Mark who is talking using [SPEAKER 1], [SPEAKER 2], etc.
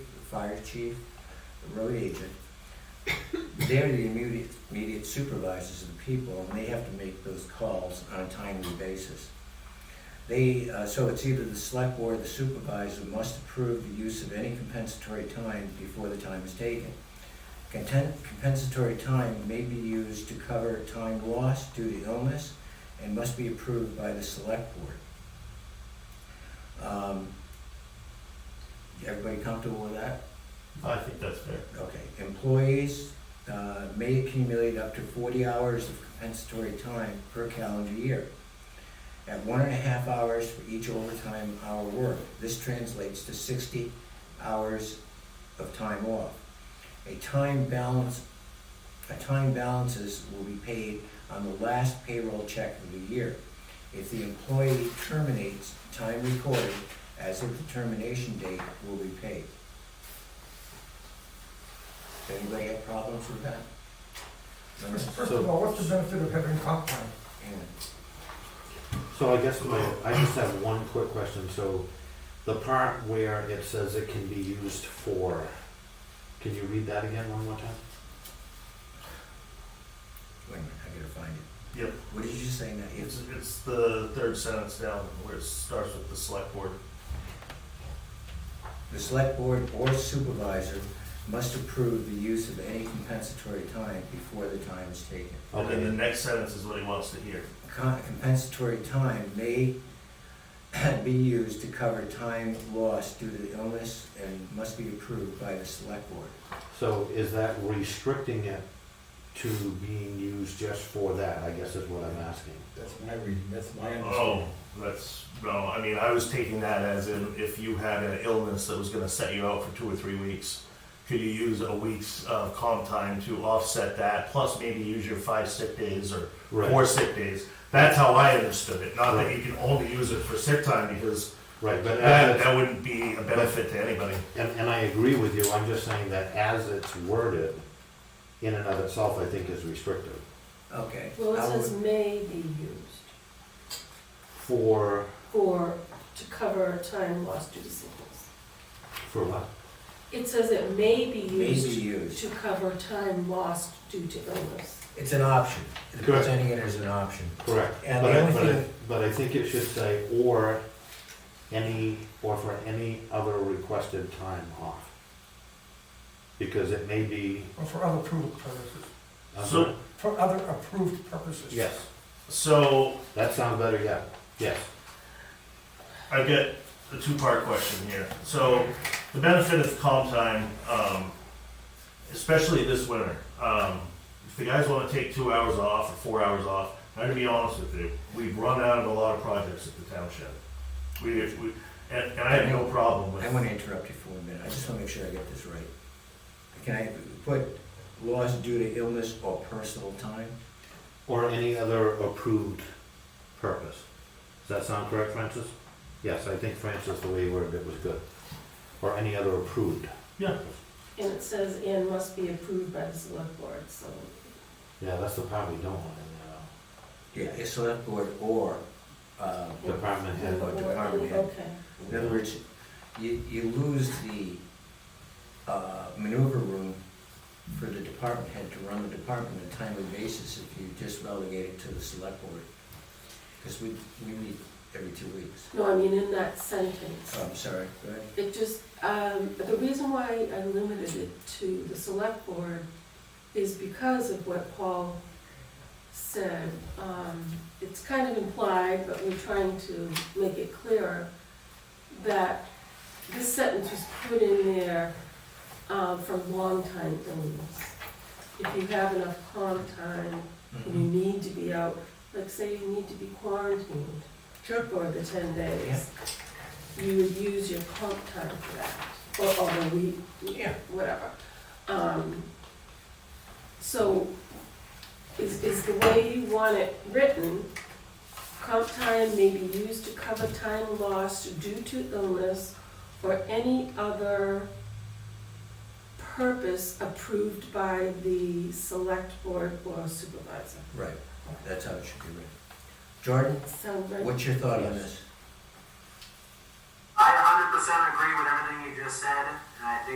[SPEAKER 1] fire chief, road agent, they're the immediate, immediate supervisors of the people, and they have to make those calls on a timely basis. They, uh, so it's either the select board or the supervisor must approve the use of any compensatory time before the time is taken. Content, compensatory time may be used to cover time lost due to illness and must be approved by the select board. Um, everybody comfortable with that?
[SPEAKER 2] I think that's fair.
[SPEAKER 1] Okay, employees uh, may accumulate up to forty hours of compensatory time per calendar year at one and a half hours for each overtime hour worked. This translates to sixty hours of time off. A time balance, a time balances will be paid on the last payroll check of the year. If the employee terminates, time recorded as of the termination date will be paid. Does anybody have problems with that? Number-
[SPEAKER 3] First of all, what's the benefit of having comp time?
[SPEAKER 1] and-
[SPEAKER 2] So I guess my, I just have one quick question, so the part where it says it can be used for, can you read that again one more time?
[SPEAKER 1] Wait a minute, I gotta find it.
[SPEAKER 4] Yep.
[SPEAKER 1] What did you say now? It's,
[SPEAKER 4] It's, it's the third sentence down where it starts with the select board.
[SPEAKER 1] the select board or supervisor must approve the use of any compensatory time before the time is taken.
[SPEAKER 4] And then the
[SPEAKER 2] Okay,
[SPEAKER 4] next sentence is what he wants to hear.
[SPEAKER 1] Con- Compensatory time may be used to cover time lost due to illness and must be approved by the select board.
[SPEAKER 2] so is that restricting it to being used just for that, I guess is what I'm asking.
[SPEAKER 5] That's my reading, that's my
[SPEAKER 4] Oh,
[SPEAKER 5] understanding.
[SPEAKER 4] that's, no, I mean, I was taking that as in if you had an illness that was gonna set you out for two or three weeks, could you use a week's of comp time to offset that, plus maybe use your five sick days or four
[SPEAKER 2] Right,
[SPEAKER 4] sick days? That's how I understood it, not that you can only use it for sick time, because
[SPEAKER 2] right, but
[SPEAKER 4] that,
[SPEAKER 2] as,
[SPEAKER 4] that wouldn't be a benefit to anybody.
[SPEAKER 2] and, and I agree with you, I'm just saying that as it's worded, in and of itself, I think is restrictive.
[SPEAKER 1] Okay.
[SPEAKER 6] Well,
[SPEAKER 1] I
[SPEAKER 6] it
[SPEAKER 1] would-
[SPEAKER 6] says may be used
[SPEAKER 2] For,
[SPEAKER 6] for, to cover time lost due to sickness.
[SPEAKER 2] for what?
[SPEAKER 6] It says it may be
[SPEAKER 1] May be
[SPEAKER 6] used
[SPEAKER 1] used.
[SPEAKER 6] to cover time lost due to illness.
[SPEAKER 1] It's an option. The
[SPEAKER 2] Correct.
[SPEAKER 1] Presenting it as an option.
[SPEAKER 2] Correct.
[SPEAKER 1] And
[SPEAKER 2] But
[SPEAKER 1] the
[SPEAKER 2] I-
[SPEAKER 1] only
[SPEAKER 2] but I-
[SPEAKER 1] thing-
[SPEAKER 2] But I think it should say, or any, or for any other requested time off. Because it may be.
[SPEAKER 3] Or for other approved purposes?
[SPEAKER 2] Uh-huh.
[SPEAKER 4] So-
[SPEAKER 3] For other approved purposes?
[SPEAKER 2] Yes,
[SPEAKER 4] So,
[SPEAKER 2] that sounds better, yeah, yes.
[SPEAKER 4] I've got a two-part question here. So, the benefit of calm time, um, especially this winter, um, if the guys wanna take two hours off or four hours off, I'm gonna be honest with you, we've run out of a lot of projects at the township. We, we, and, and I have no problem
[SPEAKER 1] I
[SPEAKER 4] with,
[SPEAKER 1] want to interrupt you for a minute, I just want to make sure I get this right. Can I put loss due to illness or personal time?
[SPEAKER 2] Or any other approved purpose. Does that sound correct, Francis? Yes, I think Francis, the way you worded it was good. Or any other approved.
[SPEAKER 4] yeah,
[SPEAKER 6] And it says and must be approved by the select board, so
[SPEAKER 2] Yeah, that's the part we don't want in
[SPEAKER 1] Yeah, a select board or, uh,
[SPEAKER 2] there. Department
[SPEAKER 1] Yeah,
[SPEAKER 2] head.
[SPEAKER 1] but department head.
[SPEAKER 6] Okay.
[SPEAKER 1] in other words, you, you lose the uh, maneuver room for the department head to run the department on a timely basis if you just relegate it to the select board. Because we, we meet every two weeks.
[SPEAKER 6] No, I mean, in that sentence,
[SPEAKER 1] Oh, I'm sorry, go ahead.
[SPEAKER 6] it just, um, the reason why I limited it to the select board is because of what Paul said. Um, it's kind of implied, but we're trying to make it clearer, that this sentence was put in there, um, from long-time illness. If you have enough comp time, you
[SPEAKER 1] Mhm.
[SPEAKER 6] need to be out, like say you need to be quarantined for the ten days. You would use your comp time for that, or, or the week,
[SPEAKER 1] Yeah.
[SPEAKER 6] whatever. Um, so, is, is the way you want it written, comp time may be used to cover time lost due to illness or any other purpose approved by the select board or supervisor.
[SPEAKER 1] Right, that's how it should be written. Jordan?
[SPEAKER 6] Sound right?
[SPEAKER 1] What's your thought on this?
[SPEAKER 7] I 100% agree with everything you just said, and I think